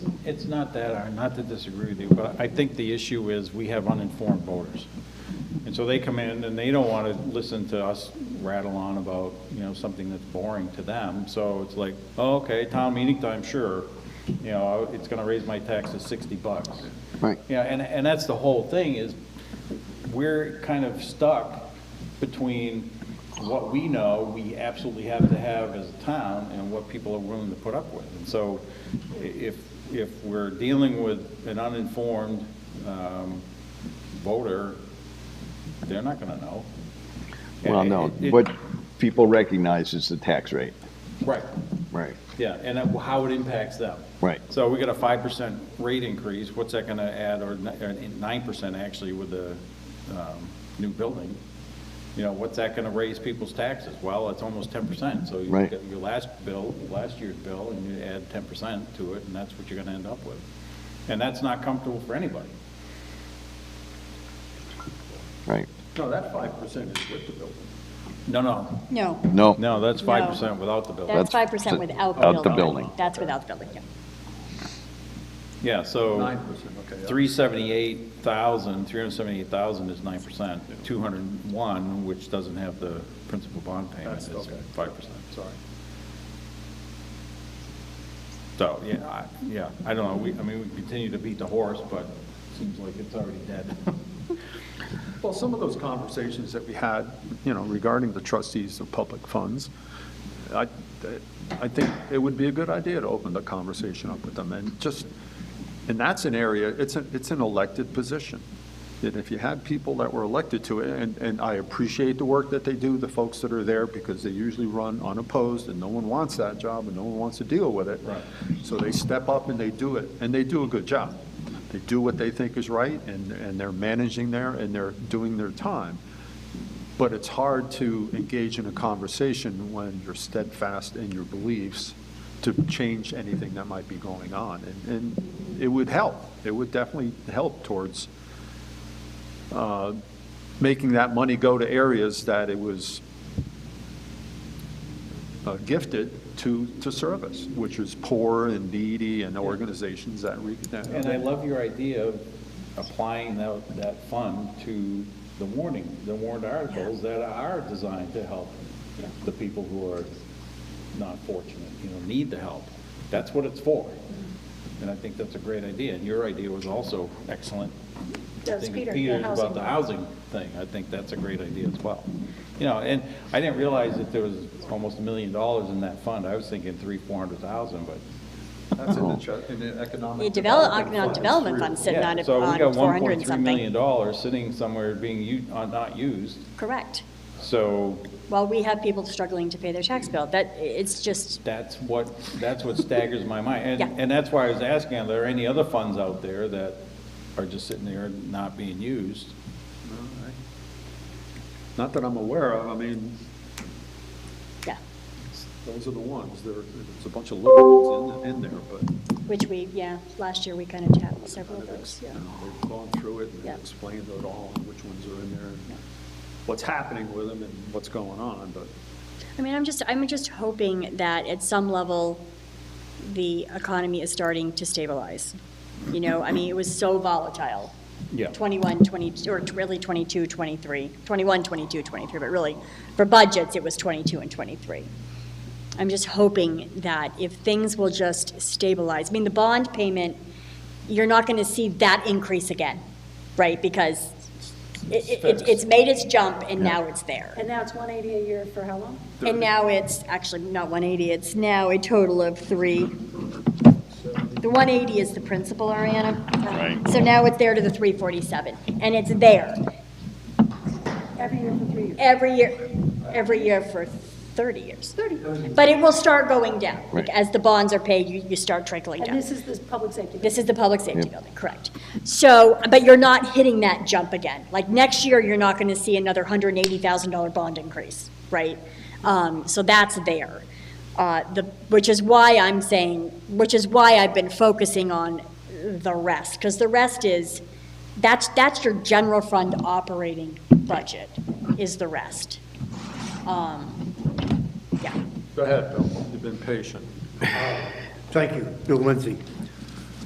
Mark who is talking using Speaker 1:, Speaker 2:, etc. Speaker 1: It's not that, Aaron, not to disagree with you, but I think the issue is we have uninformed voters. And so they come in and they don't want to listen to us rattle on about, you know, something that's boring to them. So it's like, oh, okay, town meeting time, sure. You know, it's going to raise my tax to 60 bucks.
Speaker 2: Right.
Speaker 1: Yeah, and, and that's the whole thing is we're kind of stuck between what we know we absolutely have to have as a town and what people are willing to put up with. And so i- if, if we're dealing with an uninformed um, voter, they're not going to know.
Speaker 2: Well, no,
Speaker 1: It- it-
Speaker 2: what people recognize is the tax rate.
Speaker 1: Right,
Speaker 2: Right.
Speaker 1: yeah, and that- how it impacts them.
Speaker 2: Right.
Speaker 1: So we got a five percent rate increase, what's that gonna add, or nine percent actually with the, um, new building? You know, what's that gonna raise people's taxes? Well, it's almost ten percent, so you
Speaker 2: Right.
Speaker 1: get your last bill, last year's bill, and you add ten percent to it, and that's what you're gonna end up with. And that's not comfortable for anybody.
Speaker 2: Right.
Speaker 3: No, that five percent is with the building.
Speaker 1: No, no,
Speaker 4: No,
Speaker 2: No,
Speaker 1: no, that's
Speaker 4: No.
Speaker 1: five percent without the building.
Speaker 2: That's
Speaker 4: that's five percent
Speaker 2: the-
Speaker 4: without the building.
Speaker 2: out the building.
Speaker 4: That's without the building, yeah.
Speaker 1: Yeah, so.
Speaker 3: Nine percent, okay.
Speaker 1: 378,000, 378,000 is 9%. 201, which doesn't have the principal bond payment, is
Speaker 3: That's- okay.
Speaker 1: 5%.
Speaker 3: Sorry.
Speaker 1: So, yeah, I, yeah, I don't know, we, I mean, we continue to beat the horse, but it seems like it's already dead.
Speaker 3: Well, some of those conversations that we had, you know, regarding the trustees of public funds, I, I think it would be a good idea to open the conversation up with them, and just, and that's an area, it's, a- it's an elected position. And if you had people that were elected to it, and, and I appreciate the work that they do, the folks that are there, because they usually run unopposed, and no one wants that job, and no one wants to deal with it.
Speaker 1: Right.
Speaker 3: So they step up and they do it, and they do a good job. They do what they think is right, and, and they're managing there, and they're doing their time. But it's hard to engage in a conversation when you're steadfast in your beliefs to change anything that might be going on. And, and it would help, it would definitely help towards uh, making that money go to areas that it was uh, gifted to, to service, which is poor and needy and organizations that. re- that-
Speaker 1: And I love your idea of applying that, that fund to the warning, the warrant articles that are designed to help the people who are not fortunate, you know, need the help. That's what it's for.
Speaker 4: Mm-hmm.
Speaker 1: And I think that's a great idea, and your idea was also excellent.
Speaker 4: That was
Speaker 1: I think it's
Speaker 4: Peter, the
Speaker 1: Peter's about
Speaker 4: housing.
Speaker 1: the housing thing, I think that's a great idea as well. You know, and I didn't realize that there was almost a million dollars in that fund, I was thinking three, four hundred thousand, but
Speaker 3: That's in the, tru- in the
Speaker 4: The
Speaker 3: economic.
Speaker 4: develop, no,
Speaker 3: fund.
Speaker 4: development fund sitting
Speaker 1: Yeah,
Speaker 4: on, it-
Speaker 1: so we
Speaker 4: on
Speaker 1: got
Speaker 4: four hundred and
Speaker 1: $1.3 million
Speaker 4: something.
Speaker 1: dollars sitting somewhere being u, uh, not used,
Speaker 4: Correct.
Speaker 1: so
Speaker 4: Well, we have people struggling to pay their tax bill. That, it's just,
Speaker 1: that's what, that's what staggers my mind.
Speaker 4: Yeah.
Speaker 1: And, and that's why I was asking, are there any other funds out there that are just sitting there not being used?
Speaker 3: Not that I'm aware of, I mean,
Speaker 4: yeah,
Speaker 3: those are the ones, there, there's a bunch of little ones in, in there, but
Speaker 4: which we, yeah, last year we kind of tapped several of
Speaker 3: kind of
Speaker 4: those,
Speaker 3: ex- you
Speaker 4: yeah.
Speaker 3: know, they've gone through it and
Speaker 4: Yeah.
Speaker 3: explained it all, and which ones are in there, and what's happening with them and what's going on, but
Speaker 4: I mean, I'm just, I'm just hoping that at some level, the economy is starting to stabilize. You know, I mean, it was so volatile.
Speaker 1: Yeah.
Speaker 4: 21, 22, or really 22, 23, 21, 22, 23, but really, for budgets, it was 22 and 23. I'm just hoping that if things will just stabilize, I mean, the bond payment, you're not going to see that increase again, right? Because it, it- it's- it's made its jump, and now it's there.
Speaker 5: And now it's 180 a year for how long?
Speaker 4: And now it's, actually, not 180, it's now a total of three. The 180 is the principal, Ariana. Right. So now it's there to the 347, and it's there
Speaker 5: Every year for three years?
Speaker 4: every year, every year for 30 years. 30. But it will start going down. Like, As the bonds are paid, you, you start trickling
Speaker 5: And
Speaker 4: down.
Speaker 5: this is the public safety.
Speaker 4: This is the public safety building, correct. So, but you're not hitting that jump again. Like, next year, you're not going to see another $180,000 bond increase, right? Um, So that's there. Uh, The, which is why I'm saying, which is why I've been focusing on the rest, because the rest is, that's, that's your general fund operating budget, is the rest. Um, Yeah.
Speaker 3: Go ahead, Bill, you've been patient.
Speaker 6: Thank you, Bill Lindsay.